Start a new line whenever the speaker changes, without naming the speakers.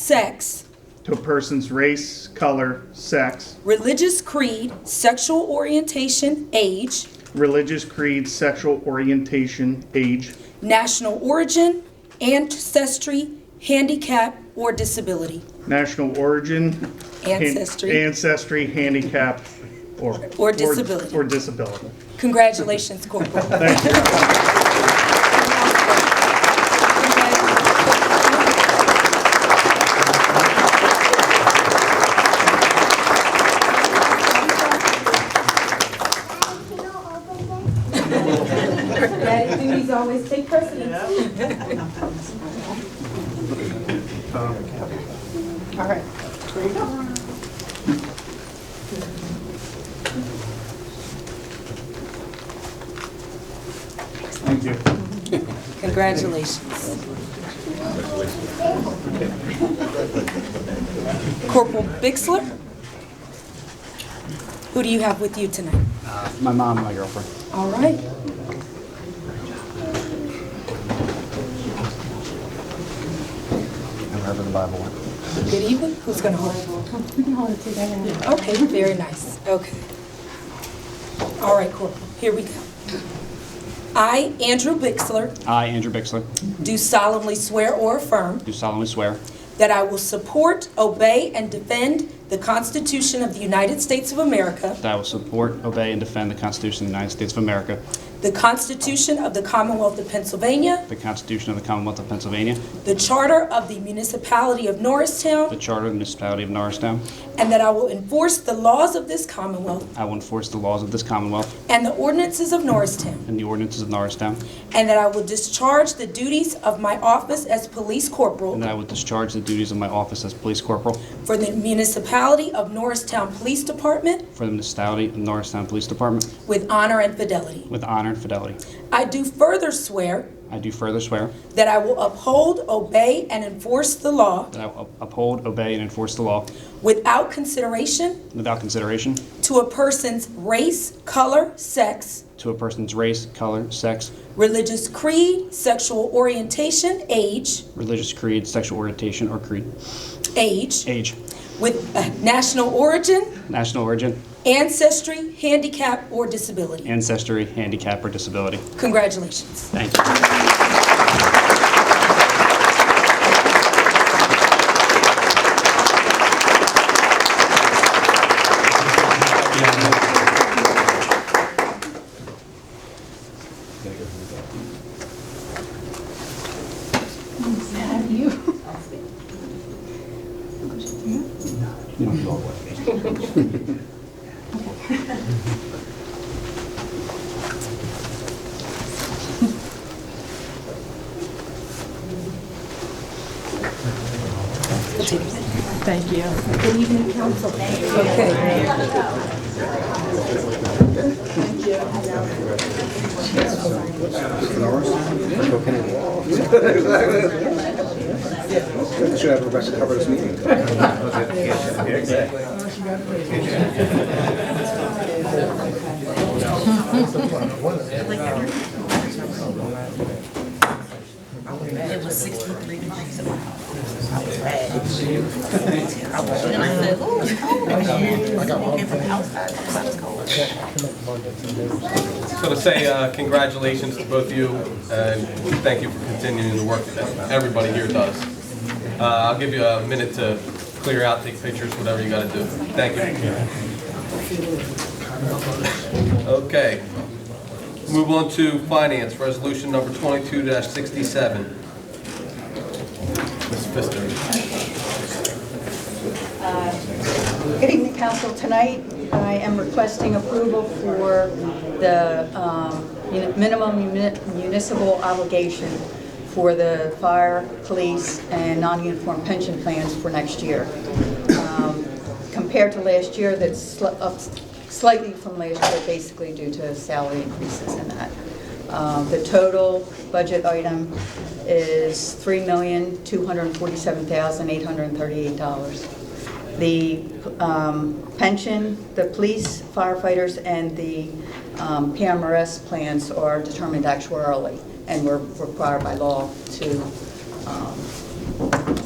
sex,
to a person's race, color, sex,
religious creed, sexual orientation, age,
religious creed, sexual orientation, age,
national origin, ancestry, handicap, or disability.
national origin, han-
Ancestry.
ancestry, handicap, or
Or disability.
or disability.
Congratulations, Corporal.
Thank you.
Can you open this?
Daddy duties always take precedence. All right, there you go.
Thank you.
Congratulations. Corporal Bixler? Who do you have with you tonight?
My mom, my girlfriend.
All right.
And wherever the Bible went.
Good evening. Who's going to hold it? Okay, very nice. Okay. All right, Corporal, here we go. I, Andrew Bixler,
I, Andrew Bixler,
do solemnly swear or affirm
do solemnly swear
that I will support, obey, and defend the Constitution of the United States of America,
that I will support, obey, and defend the Constitution of the United States of America,
the Constitution of the Commonwealth of Pennsylvania,
the Constitution of the Commonwealth of Pennsylvania,
the Charter of the Municipality of
the
Norristown,
Charter of the Municipality of Norristown.
and that I will enforce the laws of this Commonwealth
I will enforce the laws of this Commonwealth
and the ordinances of Norristown.
and the ordinances of Norristown,
And that I will discharge the duties of my office as police
and
corporal
that I will discharge the duties of my office as police corporal
for the municipality of Norristown Police Department
for the municipality of Norristown Police Department
with honor and fidelity.
with honor and fidelity.
I do further swear
I do further swear
that I will uphold, obey, and enforce the law
that I will uphold, obey, and enforce the law
without consideration
without consideration
to a person's race, color, sex,
to a person's race, color, sex,
religious creed, sexual orientation, age,
religious creed, sexual orientation, or creed,
age,
age,
with uh, national origin,
national origin,
ancestry, handicap, or disability.
ancestry, handicap, or disability.
Congratulations.
Thank you.
Thank you.
Should have Rebecca cover this meeting.
It was sixty-three degrees. in my house. I was red. I was, and I said, ooh, it's cold. I was walking from the outside, because I was cold.
So to say uh, congratulations to both of you, and thank you for continuing the work that everybody here does. Uh, I'll give you a minute to clear out, take pictures, whatever you gotta do. Thank you. Okay. Move on to finance, resolution number twenty-two sixty-seven. Ms. Pfister.
Good evening, council. Tonight, I am requesting approval for the um, muni- minimum muni- municipal obligation for the fire, police, and non-uniform pension plans for next year. Um, Compared to last year, that's sli- up slightly from last year, basically due to salary increases and that. Um, The total budget item is $3,247,838 the um, pension, the police, firefighters, and the um, PMRS plans are determined actuarially, and we're required by law to um,